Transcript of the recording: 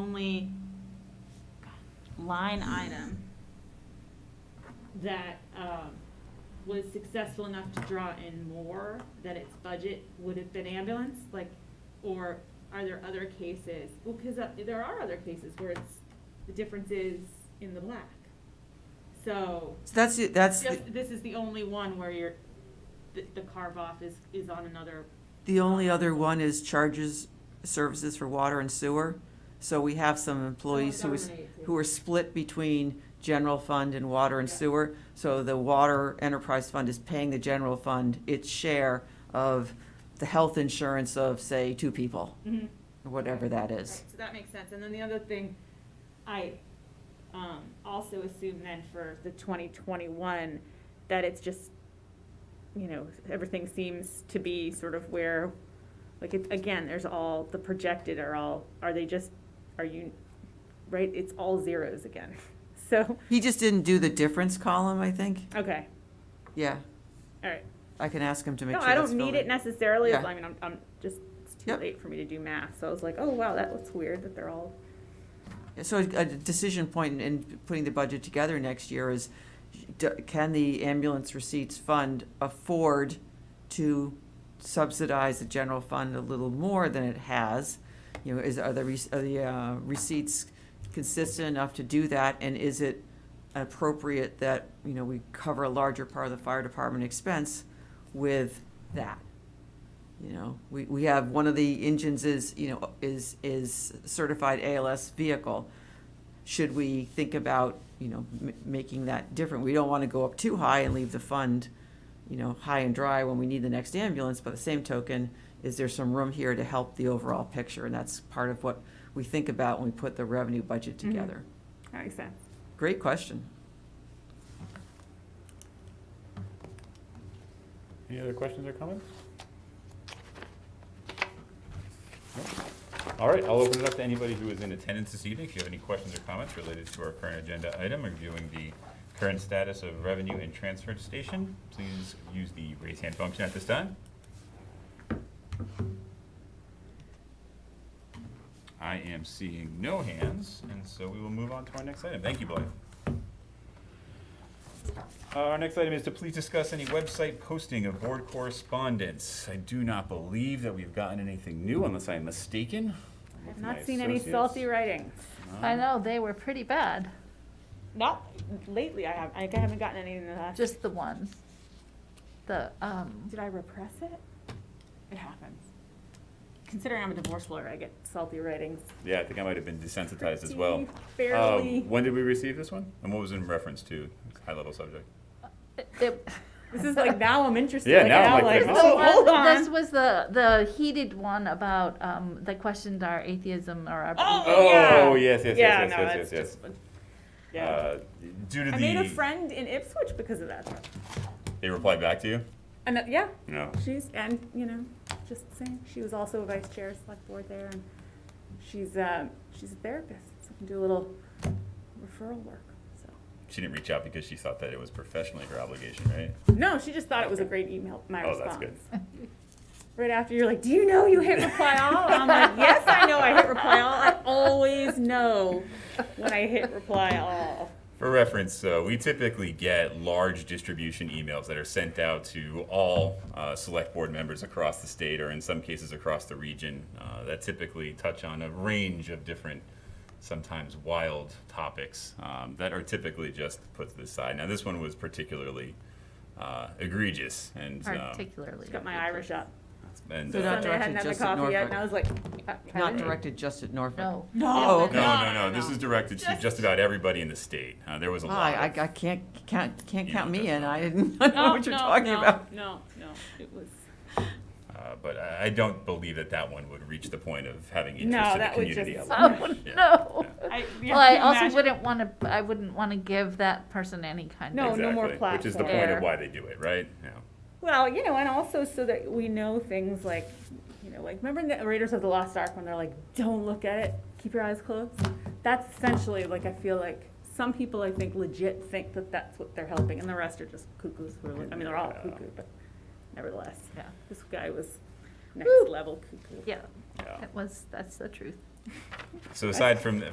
only line item that, um, was successful enough to draw in more that its budget would have been ambulance, like, or are there other cases? Well, cause uh, there are other cases where it's, the difference is in the black. So, So that's, the- that's the- just, this is the only one where you're, the, the carve off is, is on another, the only other one is charges, services for water and sewer. So we have some employees who is, government agency. who are split between general fund and water and Yeah. sewer. So the water enterprise fund is paying the general fund its share of the health insurance of, say, two people, Mhm. or whatever that Right, is. so that makes sense, and then the other thing, I, um, also assume then for the twenty twenty-one, that it's just, you know, everything seems to be sort of where, like, it, again, there's all, the projected are all, are they just, are you, right, it's all zeros again, so, He just didn't do the difference column, I think. okay, Yeah, all right. I can ask him to make No, sure I that's don't need filled it in. necessarily, Yeah. I mean, I'm, I'm just, it's too Yep. late for me to do math, so I was like, oh, wow, that looks weird that they're all So a a decision point in- in putting the budget together next year is, d- can the ambulance receipts fund afford to subsidize the general fund a little more than it has? You know, is, are the, rec- are the uh, receipts consistent enough to do that? And is it appropriate that, you know, we cover a larger part of the fire department expense with that? You know, we, we have, one of the engines is, you know, is, is certified ALS vehicle. Should we think about, you know, m- making that different? We don't want to go up too high and leave the fund, you know, high and dry when we need the next ambulance. By the same token, is there some room here to help the overall picture? And that's part of what we think about when we put the revenue budget Mhm. together. That makes sense. Great question. Any other questions or comments? No? All right, I'll open it up to anybody who is in attendance this evening. If you have any questions or comments related to our current agenda item, reviewing the current status of revenue and transfer station, please use the raise hand function at this time. I am seeing no hands, and so we will move on to our next item. Thank you, Blythe. Uh, Our next item is to please discuss any website posting of board correspondence. I do not believe that we've gotten anything new unless I'm mistaken. I've Looking at my not seen any associates. salty writings. I know, they were pretty bad, Not lately. I have. I haven't gotten any in the last. just the one. The, um, did I repress it? It happens. Considering I'm a divorce lawyer, I get salty writings. Yeah, I think I might have been desensitized as well. Barely. Um, When did we receive this one? And what was in reference to? High-level subject. it- it- this is like now I'm interested. Yeah, like, now I'm like, like, oh, hold on. This was the, the heated one about, um, that questioned our atheism or our. oh, belief. yeah. Oh, yes, yes, yes, yeah, yes, no, yes, that's yes, just- Yeah. Uh, Due to I made a the, friend in Ipswich because of that. though. they replied back to you? And uh, yeah, No. She's, and, you know, just saying, she was also a vice chair of select board there, and she's, um, she's a therapist, so can do a little referral work, so. She didn't reach out because she thought that it was professionally her obligation, right? No, she just thought it was a great email, my Oh, response. that's good. Right after, you're like, do you know you hit reply all? And I'm like, yes, I know I hit reply all, I always know when I hit reply all. For reference, uh, we typically get large distribution emails that are sent out to all uh, select board members across the state, or in some cases across the region, uh, that typically touch on a range of different, sometimes wild topics um, that are typically just put to the side. Now, this one was particularly uh, egregious, and um, Particularly. Got my Irish up. and So uh, not Sunday I hadn't had my directed, just at coffee yet, and I Norfolk. was like, Not Right. directed just at Norfolk. No. Oh, okay. no, no, no, no, This no. is directed to just about everybody in the state. Uh, there was a lot. I, of- I- I can't, can't, can't You count know, me that's in. not- I didn't know what you're talking about. No, no, it was. Uh, but I I don't believe that that one would reach the point of having No, interest in the that would community. just- at large. Oh, Yeah. no. I- yeah, Well, I can you also imagine? wouldn't wanna, I wouldn't wanna give that person any kind No, of. no more Exactly, Which is the platform. point Air. of why they do it, right? Yeah. Well, you know, and also so that we know things like, you know, like remember in the Raiders of the Lost Ark when they're like, "Don't look at it, keep your eyes closed." That's essentially like I feel like some people I think legit think that that's what they're helping, and the rest are just cuckoos. Who are, like- I mean, they're all cuckoo, but nevertheless, Yeah. this guy was next Woo. level cuckoo. Yeah, Yeah. it was, that's the truth. So aside from,